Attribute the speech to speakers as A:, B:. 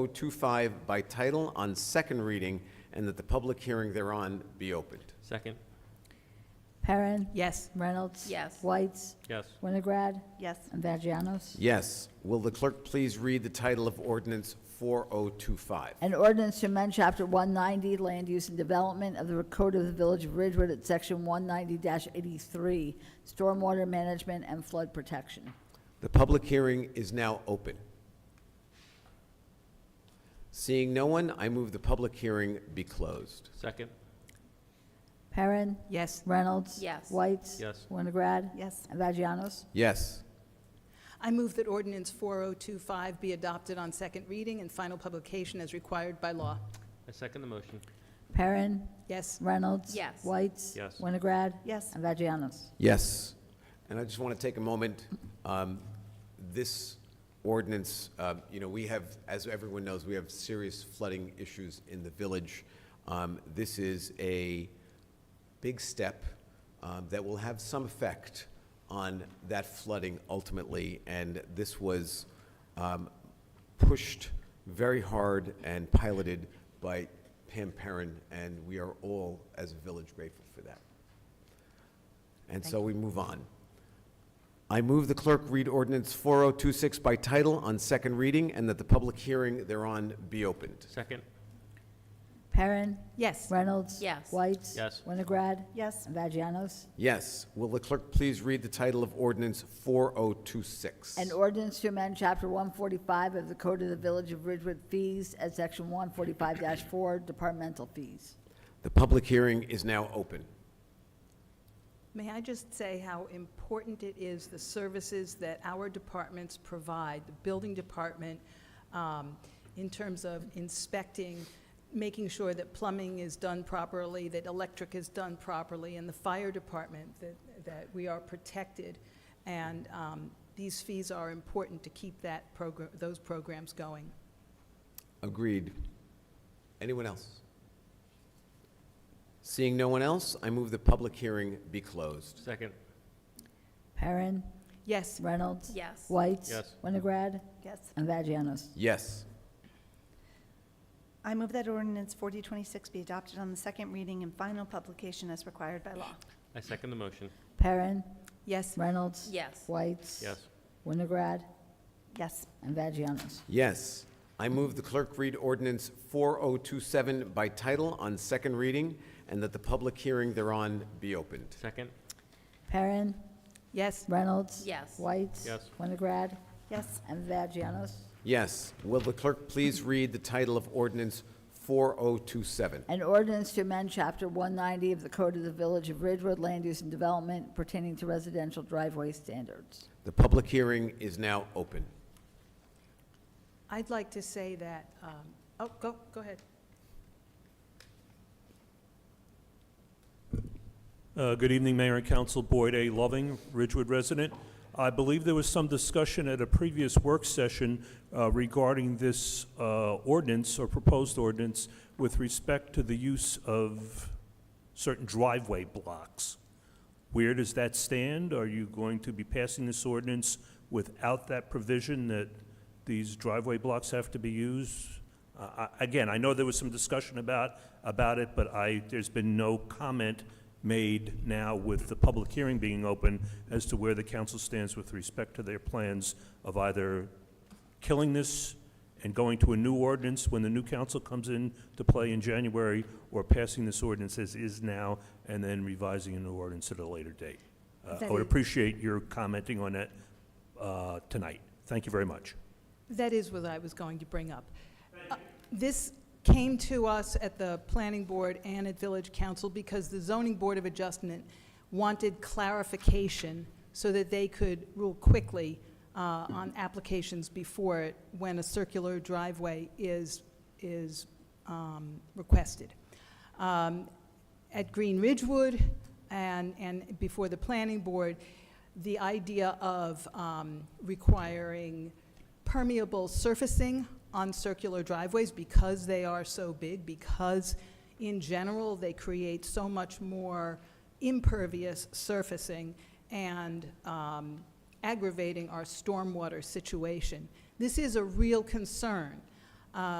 A: 4025 by title on second reading, and that the public hearing thereon be opened.
B: Second,
C: Perrin.
D: Yes.
C: Reynolds.
D: Yes.
C: Whites.
B: yes.
C: Winograd.
D: Yes.
C: And Vagianos.
A: Yes. Will the clerk please read the title of ordinance 4025?
C: An ordinance to amend Chapter 190, Land Use and Development of the Code of the Village of Ridgewood at Section 190-83, Stormwater Management and Flood Protection.
A: The public hearing is now open. Seeing no one, I move the public hearing be closed.
B: Second,
C: Perrin.
D: Yes.
C: Reynolds.
D: Yes.
C: Whites.
B: Yes.
C: Winograd.
D: Yes.
C: And Vagianos.
A: Yes.
E: I move that ordinance 4025 be adopted on second reading and final publication as required by law.
B: I second the motion.
C: Perrin.
E: Yes,
C: Reynolds.
D: Yes.
C: Whites.
B: Yes.
C: Winograd.
D: Yes.
C: And Vagianos.
A: Yes. And I just want to take a moment, um, this ordinance, uh, you know, we have, as everyone knows, we have serious flooding issues in the village. Um, This is a big step um, that will have some effect on that flooding ultimately, and this was um, pushed very hard and piloted by Pam Perrin, and we are all, as a village, grateful for that. And so we move on. I move the clerk read ordinance 4026 by title on second reading and that the public hearing thereon be opened.
B: Second,
C: Perrin.
D: Yes.
C: Reynolds.
D: Yes.
C: Whites.
B: Yes.
C: Winograd.
D: Yes.
C: And Vagianos.
A: Yes. Will the clerk please read the title of ordinance 4026?
C: An ordinance to amend Chapter 145 of the Code of the Village of Ridgewood Fees at Section 145-4 Departmental Fees.
A: The public hearing is now open.
E: may I just say how important it is, the services that our departments provide, the building department, um, in terms of inspecting, making sure that plumbing is done properly, that electric is done properly, and the fire department, that, that we are protected. And um, these fees are important to keep that program, those programs going.
A: Agreed. Anyone else? Seeing no one else, I move the public hearing be closed.
B: second,
C: Perrin.
E: Yes,
C: Reynolds.
D: Yes.
C: Whites.
B: Yes.
C: Winograd.
D: Yes.
C: And Vagianos.
A: Yes.
F: I move that ordinance 4026 be adopted on the second reading and final publication as required by law.
B: I second the motion.
C: Perrin.
E: yes,
C: Reynolds.
D: Yes.
C: Whites.
B: Yes,
C: Winograd.
F: Yes,
C: And Vagianos.
A: Yes. I move the clerk read ordinance 4027 by title on second reading and that the public hearing thereon be opened.
B: second,
C: Perrin.
E: yes,
C: Reynolds.
D: Yes.
C: Whites.
B: Yes.
C: Winograd.
F: yes,
C: And Vagianos.
A: Yes. Will the clerk please read the title of ordinance 4027?
C: An ordinance to amend Chapter 190 of the Code of the Village of Ridgewood Land Use and Development pertaining to residential driveway standards.
A: The public hearing is now open.
E: I'd like to say that, um, oh, go, go ahead.
G: Uh, Good evening, Mayor and Council. Boyd A. Loving, Ridgewood resident. I believe there was some discussion at a previous work session uh, regarding this uh, ordinance or proposed ordinance with respect to the use of certain driveway blocks. Where does that stand? Are you going to be passing this ordinance without that provision that these driveway blocks have to be used? Uh, I- Again, I know there was some discussion about, about it, but I, there's been no comment made now with the public hearing being open as to where the council stands with respect to their plans of either killing this and going to a new ordinance when the new council comes in to play in January, or passing this ordinance as is now and then revising a new ordinance at a later date. Uh, I
E: That
G: would
E: is-
G: appreciate your commenting on that uh, tonight. Thank you very much.
E: That is what I was going to bring up. Uh, This came to us at the planning board and at village council because the zoning board of adjustment wanted clarification so that they could rule quickly uh, on applications before it when a circular driveway is, is um, requested. Um, At Green Ridgewood and, and before the planning board, the idea of um, requiring permeable surfacing on circular driveways because they are so big, because in general, they create so much more impervious surfacing and um, aggravating our stormwater situation. This is a real concern. Uh,